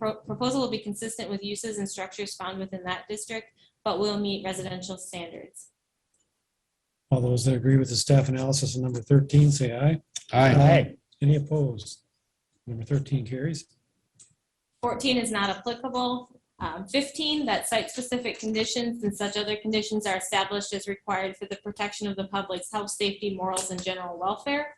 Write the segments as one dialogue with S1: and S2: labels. S1: Pro- Proposal will be consistent with uses and structures found within that district, but will meet residential standards.
S2: All those that agree with the staff analysis on number 13, say aye.
S3: Aye.
S2: Any opposed? Number 13 carries.
S1: 14 is not applicable. Um, 15, that site-specific conditions and such other conditions are established as required for the protection of the public's health, safety, morals, and general welfare.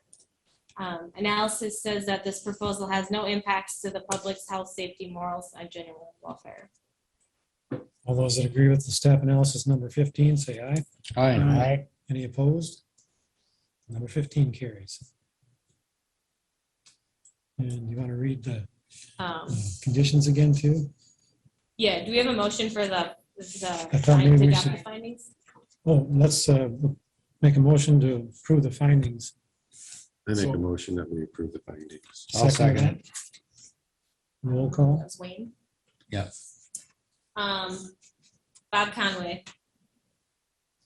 S1: Um, Analysis says that this proposal has no impacts to the public's health, safety, morals, and general welfare.
S2: All those that agree with the staff analysis number 15, say aye.
S3: Aye.
S2: Any opposed? Number 15 carries. And you want to read the
S1: Um,
S2: uh, conditions again, too?
S1: Yeah, do we have a motion for the,
S2: I thought maybe we
S1: the adopt the
S2: should-
S1: findings?
S2: Oh, let's uh, make a motion to approve the findings.
S4: I make
S2: So-
S4: a motion that we approve the findings.
S3: I'll second it.
S2: Roll call.
S1: That's Wayne.
S3: Yep.
S1: Um, Bob Conway,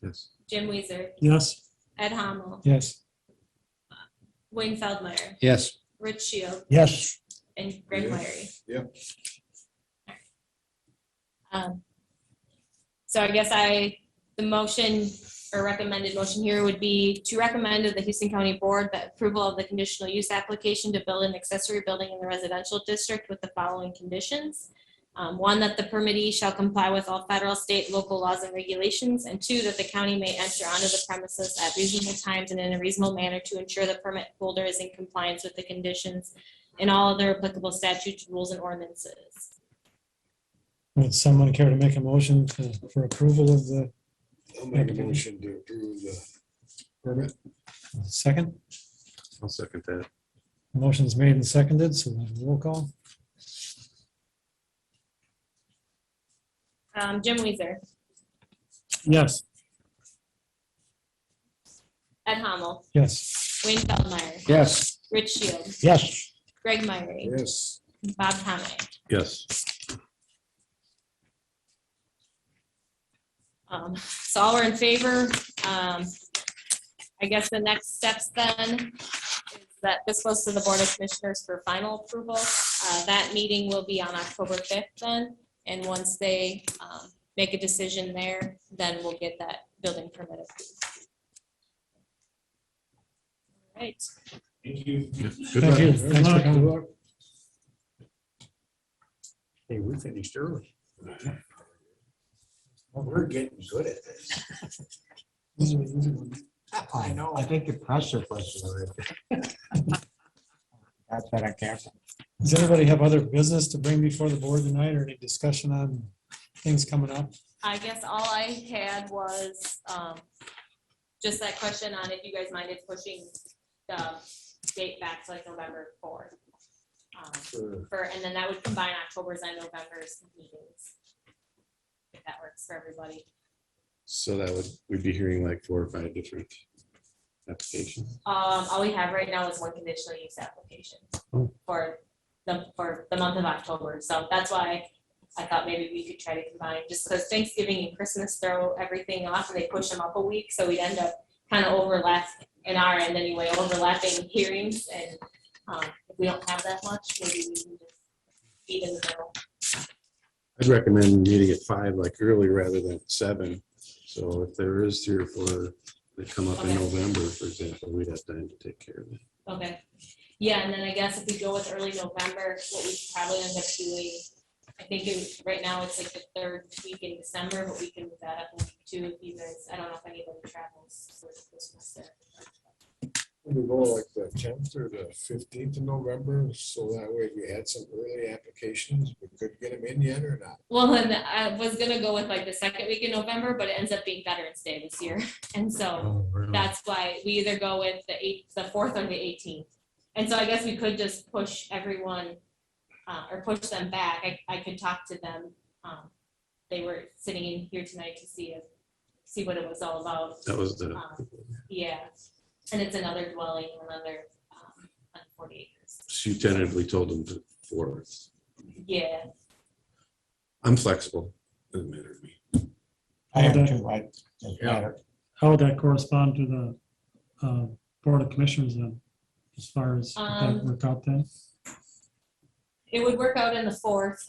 S4: Yes.
S1: Jim Weezer,
S2: Yes.
S1: Ed Hamel,
S2: Yes.
S1: Wayne Feldmeyer,
S3: Yes.
S1: Rich Shield,
S3: Yes.
S1: and Greg
S4: Yeah.
S1: Larry.
S4: Yep.
S1: Um, So I guess I, the motion or recommended motion here would be to recommend to the Houston County Board that approval of the conditional use application to build an accessory building in the residential district with the following conditions. Um, One, that the permittee shall comply with all federal, state, local laws and regulations. And two, that the county may enter onto the premises at reasonable times and in a reasonable manner to ensure the permit holder is in compliance with the conditions and all other applicable statutes, rules, and ordinances.
S2: Would someone care to make a motion to- for approval of the
S5: I'll make a motion to approve the permit.
S2: second?
S4: I'll second that.
S2: Motion's made and seconded, so then roll call.
S1: Um, Jim Weezer,
S2: Yes.
S1: Ed Hamel,
S2: Yes.
S1: Wayne Feldmeyer,
S3: Yes.
S1: Rich Shield,
S3: Yes.
S1: Greg Myrie,
S5: Yes,
S1: Bob Conway.
S4: Yes.
S1: Um, so all are in favor. Um, I guess the next steps then is that this goes to the Board of Commissioners for final approval. Uh, that meeting will be on October fifth then, and once they, um, make a decision there, then we'll get that building permit approved. All right.
S4: Good
S2: Thank
S4: luck.
S2: you. Thanks for coming.
S5: Hey, we finished early. We're getting good at this.
S3: I know. I think the pressure was. That's what I care.
S2: Does anybody have other business to bring before the board tonight or any discussion on things coming up?
S1: I guess all I had was, um, just that question on if you guys minded pushing the date back to like November fourth. Um,
S5: Sure.
S1: for, and then that would combine October's and November's meetings. If that works for everybody.
S4: So that would, we'd be hearing like four or five different applications.
S1: Um, all we have right now is one conditional use application for the, for the month of October, so that's why I thought maybe we could try to combine, just because Thanksgiving and Christmas throw everything off and they push them up a week, so we'd end up kind of overlap, in our end anyway, overlapping hearings and, um, if we don't have that much, maybe we can just feed in the middle.
S4: I'd recommend meeting at five like early rather than seven. So if there is three or four that come up in
S1: Okay.
S4: November, for example, we'd have time to take care of it.
S1: Okay, yeah, and then I guess if we go with early November, what we probably end up doing, I think it, right now it's like the third week in December, but we can move that up a week too, if you guys, I don't know if anybody travels for Christmas there.
S5: We go like the tenth or the fifteenth of November, so that way if we had some early applications, we could get them in yet or not.
S1: Well, and I was gonna go with like the second week in November, but it ends up being Veterans Day this year, and so that's why we either go with the eighth, the fourth or the eighteenth. And so I guess we could just push everyone, uh, or push them back. I, I could talk to them. Um, they were sitting in here tonight to see if, see what it was all about.
S4: That was the,
S1: Um, Yeah, and it's another dwelling, another, um, on forty acres.
S4: she tentatively told them to four.
S1: Yeah,
S4: I'm flexible. Doesn't matter to me.
S2: How
S3: I am
S2: would
S3: too. I, doesn't
S4: Yeah.
S3: matter.
S2: how would that correspond to the uh, Board of Commissioners then, as far as
S1: Um,
S2: work out then?
S1: it would work out in the fourth.